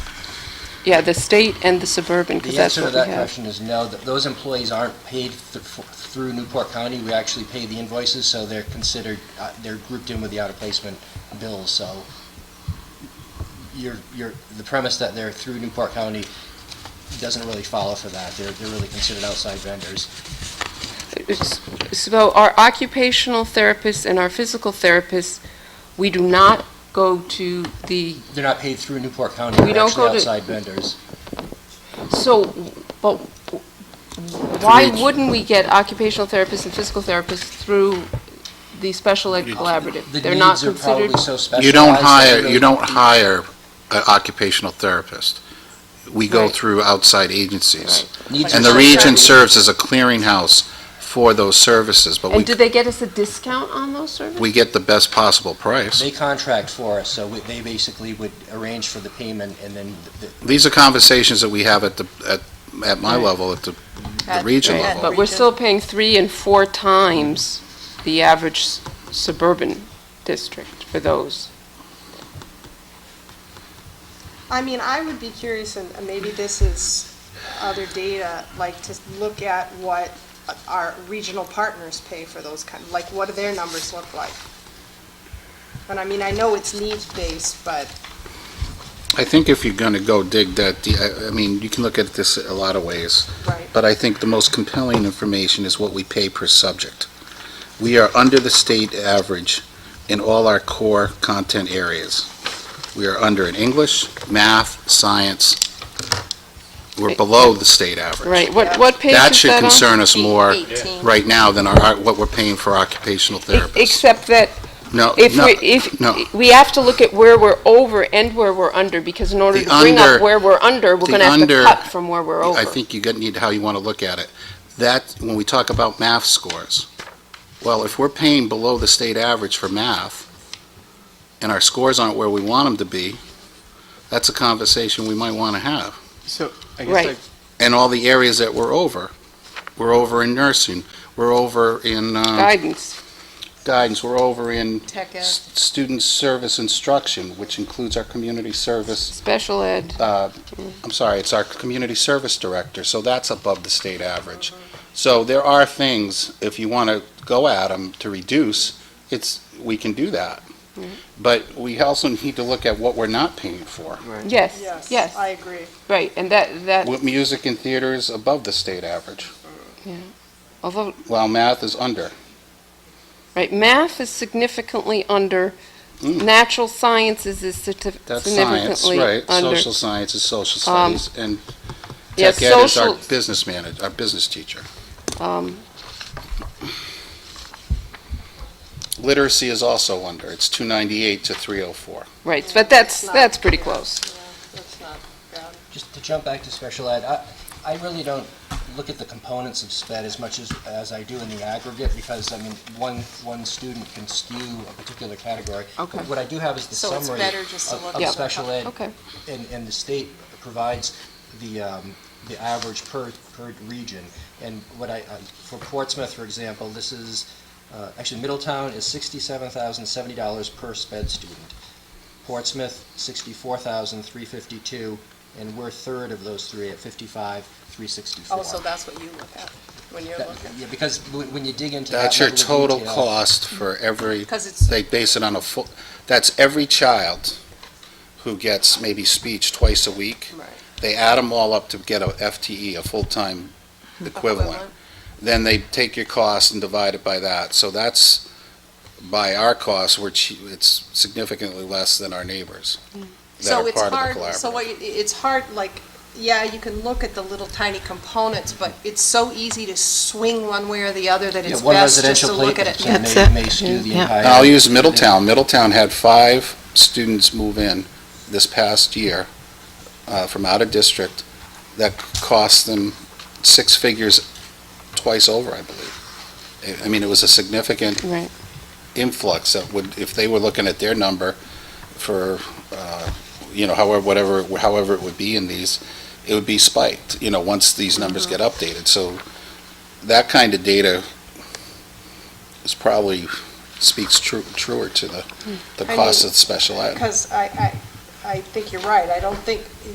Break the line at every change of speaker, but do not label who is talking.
Yeah, the state and the suburban, because
The
that's
answer to
what we have.
that question is no, Th- those employees aren't paid th- f- through Newport County. We actually pay the invoices, so they're considered, uh, they're grouped in with the out-of-placement bills, so your, your, the premise that they're through Newport County doesn't really follow for that. They're, they're really considered outside vendors.
It's- So our occupational therapists and our physical therapists, we do not go to the,
They're not paid through Newport County.
We
They're
don't
actually
go to-
outside vendors.
so, but why
Through each-
wouldn't we get occupational therapists and physical therapists through the special ed collaborative?
The
They're not
needs are
considered,
probably so specialized.
You don't
that
hire,
really-
you don't hire an occupational therapist. We go
Right.
through outside agencies.
Needs
And
are
the
so-
region serves as a clearinghouse for those services, but
and do
we,
they get us a discount on those services?
we get the best possible price.
They contract for us, so we- they basically would arrange for the payment, and then the-
These are conversations that we have at the, at, at my
Right.
level, at the, the
At-
region
right.
level.
But we're still paying three and four times the average s- suburban district for those.
I mean, I would be curious, and and maybe this is other data, like to look at what our regional partners pay for those kind, like what do their numbers look like? And I mean, I know it's needs-based, but
I think if you're gonna go dig that, de- I, I mean, you can look at this a lot of ways.
Right.
But I think the most compelling information is what we pay per subject. We are under the state average in all our core content areas. We are under in English, math, science. We're below the state average.
Right, what,
Yeah.
what page is that on?
That should concern us more
Eighteen.
right now than our, what we're paying for occupational therapists.
E-, Except that
No,
If
no,
we,
no.
if, we have to look at where we're over and where we're under, because in order
The
to bring up
under-
where we're under, we're
the
gonna have to
under-
cut from where we're over.
I think you got- need how you want to look at it. That, when we talk about math scores, well, if we're paying below the state average for math, and our scores aren't where we want them to be, that's a conversation we might want to have.
So, I
Right.
guess, like,
And all the areas that we're over, we're over in nursing, we're over in uh,
Guidance,
guidance, we're over in
Tech ed.
s- student service instruction, which includes our community service
special ed,
uh, I'm sorry, it's our community service director, so that's above the state average. So there are things, if you want to go at them to reduce, it's, we can do that.
Mm-hmm.
But we also need to look at what we're not paying for.
yes,
yes,
yes,
I agree.
right, and that, that,
What music and theater is above the state average,
although,
while math is under.
right, math is significantly under,
Mm.
natural sciences is certi-
That's science,
significantly
right?
under.
Social sciences, social
Um,
studies, and
yeah,
tech ed is our
social-
business manager, our business teacher.
Um,
Literacy is also under, it's 298 to 304.
right, but that's,
not-
that's pretty
yeah,
close.
yeah, that's not bad.
Just to jump back to special ed, I, I really don't look at the components of sped as much as, as I do in the aggregate, because, I mean, one, one student can skew a particular category.
Okay.
But What I do have is the
So it's
summary
better just to
of-
look
of
at the
special ed,
Okay,
and, and the state provides the, um, the average per, per region. And what I, I- for Portsmouth, for example, this is, uh, actually Middletown is sixty-seven thousand seventy dollars per sped student. Portsmouth, sixty-four thousand three fifty-two, and we're third of those three at fifty-five, three sixty-four.
Oh, so that's what you look at when you're looking,
Yeah, because when when you dig into that
That's your
level of
total
detail-
cost for every,
because it's,
they base it on a full, that's every child who gets maybe speech twice a week.
right.
They add them all up to get a FTE, a full-time equivalent.
Equivalent.
Then they take your cost and divide it by that. So that's, by our cost, we're, chea- it's significantly less than our neighbors that
Mm. So
are
it's
part of the
hard, so
collaborative.
what, you- it's hard, like, yeah, you can look at the little tiny components, but it's so easy to swing one way or the other that
Yeah,
it's
one
best just
residential
to look at
placement
it.
can
That's
may,
it.
may skew the
Yeah.
entire.
I'll use Middletown. Middletown had five students move in this past year uh, from out of district that cost them six figures twice over, I believe. I- I mean, it was a significant
right.
influx that would, if they were looking at their number for, uh, you know, however, whatever, however it would be in these, it would be spiked, you know, once these numbers
Mm-hmm.
get updated. So that kind of data is probably speaks tru- truer to the, the
Hmm. I
cost
mean,
of special ed.
Because I, I, I think you're right. I don't think,